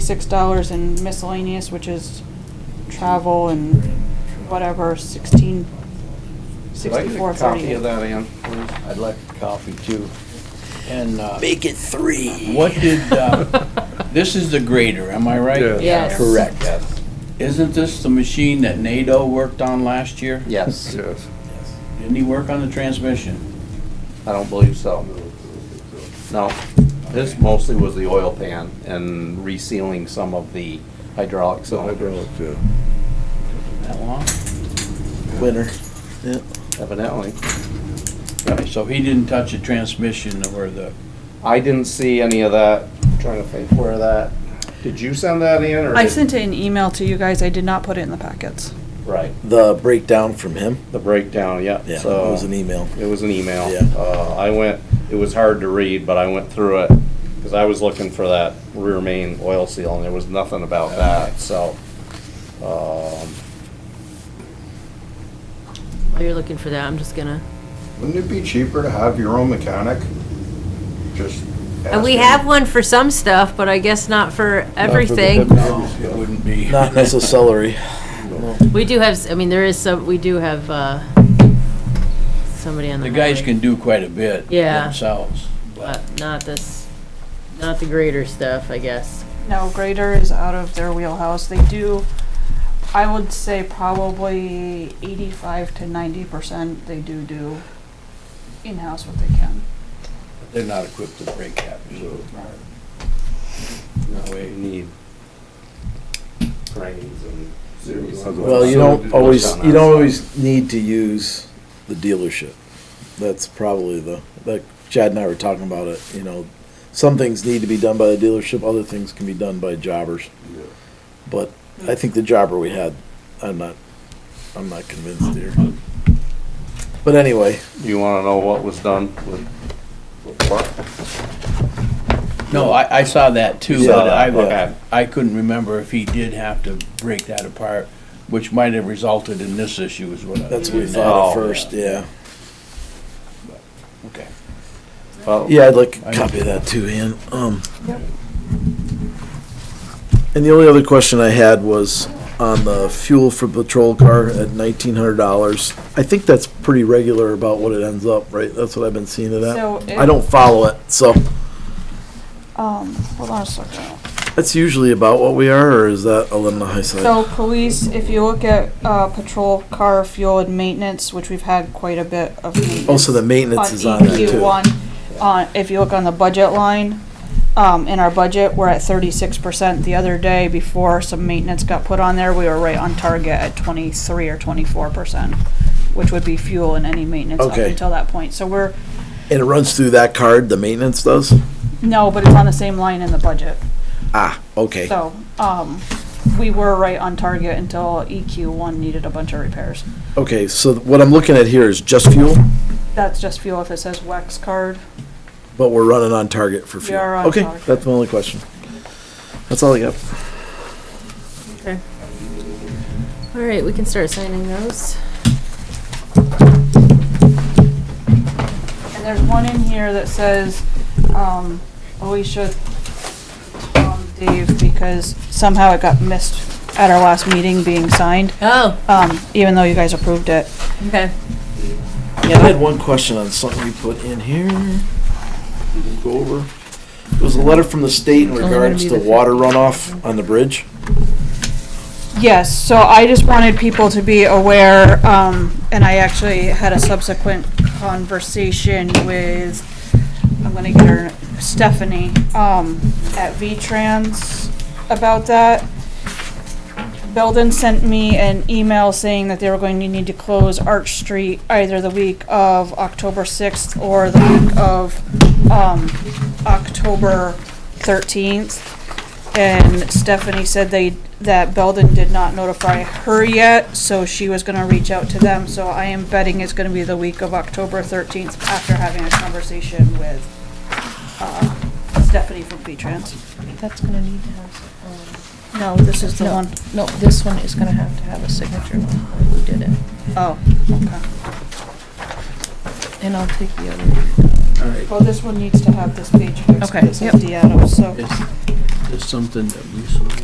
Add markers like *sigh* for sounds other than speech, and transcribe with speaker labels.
Speaker 1: six dollars in miscellaneous, which is travel and whatever, sixteen,
Speaker 2: Would I get a
Speaker 1: sixty-four
Speaker 2: Copy
Speaker 1: thirty-eight.
Speaker 2: of that, Ann, please.
Speaker 3: I'd like a coffee too. And uh,
Speaker 4: Make it three.
Speaker 3: what did,
Speaker 4: *laughs*
Speaker 3: uh, this is the grader, am I right?
Speaker 5: Yeah. Yes.
Speaker 4: Correct.
Speaker 3: Isn't this the machine that NATO worked on last year?
Speaker 2: Yes,
Speaker 5: Yes.
Speaker 3: Didn't he work on the transmission?
Speaker 2: I don't believe so. No, this mostly was the oil pan and resealing some of the hydraulic cylinders.
Speaker 5: Hydraulic, yeah.
Speaker 3: That long?
Speaker 4: Winner.
Speaker 2: Evidently,
Speaker 3: Right, so he didn't touch the transmission or the,
Speaker 2: I didn't see any of that. I'm Trying to think where that, did you send that in or?
Speaker 1: I
Speaker 2: did-
Speaker 1: sent an email to you guys, I did not put it in the packets.
Speaker 2: Right,
Speaker 4: The breakdown from him.
Speaker 2: the breakdown, yeah.
Speaker 4: Yeah, it
Speaker 2: So-
Speaker 4: was
Speaker 2: *laughs*
Speaker 4: an email.
Speaker 2: It was an email.
Speaker 4: Yeah.
Speaker 2: Uh, I went, it was hard to read, but I went through it, because I was looking for that rear main oil seal, and there was nothing about that, so. um,
Speaker 5: While you're looking for that, I'm just gonna.
Speaker 6: Wouldn't it be cheaper to have your own mechanic? Just.
Speaker 5: And we
Speaker 6: ask him.
Speaker 5: have one for some stuff, but I guess not for everything.
Speaker 3: no, it wouldn't be. *laughs*
Speaker 4: Not necessarily.
Speaker 5: We do have, s- I mean, there is some, we do have, uh, somebody on the
Speaker 3: The guys
Speaker 5: highway,
Speaker 3: can do quite a bit
Speaker 5: Yeah.
Speaker 3: themselves. but-
Speaker 5: But not this, not the greater stuff, I guess.
Speaker 1: No, grader is out of their wheelhouse, they do, I would say probably eighty-five to ninety percent, they do do in-house what they can.
Speaker 3: They're not equipped to break that. so- No
Speaker 2: We
Speaker 3: way.
Speaker 2: need cranes and series.
Speaker 4: Well, you don't always, you don't always need to use the dealership. That's probably the, like Chad and I were talking about it, you know, some things need to be done by the dealership, other things can be done by jobbers. But I think the jobber we had, I'm not, I'm not convinced here. But anyway,
Speaker 2: You wanna know what was done with? with what?
Speaker 3: No, I, I saw that too,
Speaker 2: You saw
Speaker 3: but
Speaker 2: that,
Speaker 3: I,
Speaker 2: okay.
Speaker 3: I couldn't remember if he did have to break that apart, which might have resulted in this issue is what I.
Speaker 4: that's what we thought
Speaker 2: Oh.
Speaker 4: at first, yeah.
Speaker 3: Okay.
Speaker 2: Well,
Speaker 4: Yeah, I'd like a copy of that too, Ian. Um, and the only other question I had was on the fuel for patrol car at nineteen hundred dollars. I think that's pretty regular about what it ends up, right? That's what I've been seeing of that.
Speaker 1: So,
Speaker 4: I don't follow it, so
Speaker 1: Um, hold on a second.
Speaker 4: that's usually about what we are, or is that a little high side?
Speaker 1: So police, if you look at, uh, patrol car fuel and maintenance, which we've had quite a bit of.
Speaker 4: Also, the maintenance is Oh, on there
Speaker 1: EQ
Speaker 4: too.
Speaker 1: E one, on, if you look on the budget line, um, in our budget, we're at thirty-six percent. The other day, before some maintenance got put on there, we were right on target at twenty-three or twenty-four percent, which would be fuel and any maintenance up
Speaker 4: Okay.
Speaker 1: until that point. So we're,
Speaker 4: And it runs through that card, the maintenance does?
Speaker 1: no, but it's on the same line in the budget.
Speaker 4: Ah, okay.
Speaker 1: So, um, we were right on target until EQ one needed a bunch of repairs.
Speaker 4: Okay, so what I'm looking at here is just fuel,
Speaker 1: That's just fuel if it says Wex card.
Speaker 4: but we're running on target for
Speaker 1: We
Speaker 4: fuel.
Speaker 1: are on
Speaker 4: Okay,
Speaker 1: target.
Speaker 4: that's my only question. That's all I got.
Speaker 5: All right, we can start signing those.
Speaker 1: And there's one in here that says, um, Alicia, Tom, um, Dave, because somehow it got missed at our last meeting being signed,
Speaker 5: Oh,
Speaker 1: um, even though you guys approved it.
Speaker 5: okay.
Speaker 4: Yeah, I had one question on something you put in here. Go over. It was a letter from the state in
Speaker 5: only gonna
Speaker 4: regards
Speaker 5: be
Speaker 4: to
Speaker 5: the
Speaker 4: water runoff on the bridge.
Speaker 1: Yes, so I just wanted people to be aware, um, and I actually had a subsequent conversation with, I'm gonna get her, Stephanie, um, at V-Trans about that. Belden sent me an email saying that they were going to need to close Arch Street either the week of October sixth or the week of, um, October thirteenth. And Stephanie said they, that Belden did not notify her yet, so she was gonna reach out to them, so I am betting it's gonna be the week of October thirteenth after having a conversation with, uh, Stephanie from V-Trans.
Speaker 7: That's gonna need to have,
Speaker 1: No, this is the
Speaker 7: um, no,
Speaker 1: one.
Speaker 7: no, this one is gonna have to have a signature line, who did it,
Speaker 1: Oh, okay.
Speaker 7: and I'll take the other.
Speaker 1: Well, this one needs to have this page fixed,
Speaker 7: Okay,
Speaker 1: because
Speaker 7: yep.
Speaker 1: it's Deanna, so.
Speaker 3: Is, There's something that we saw.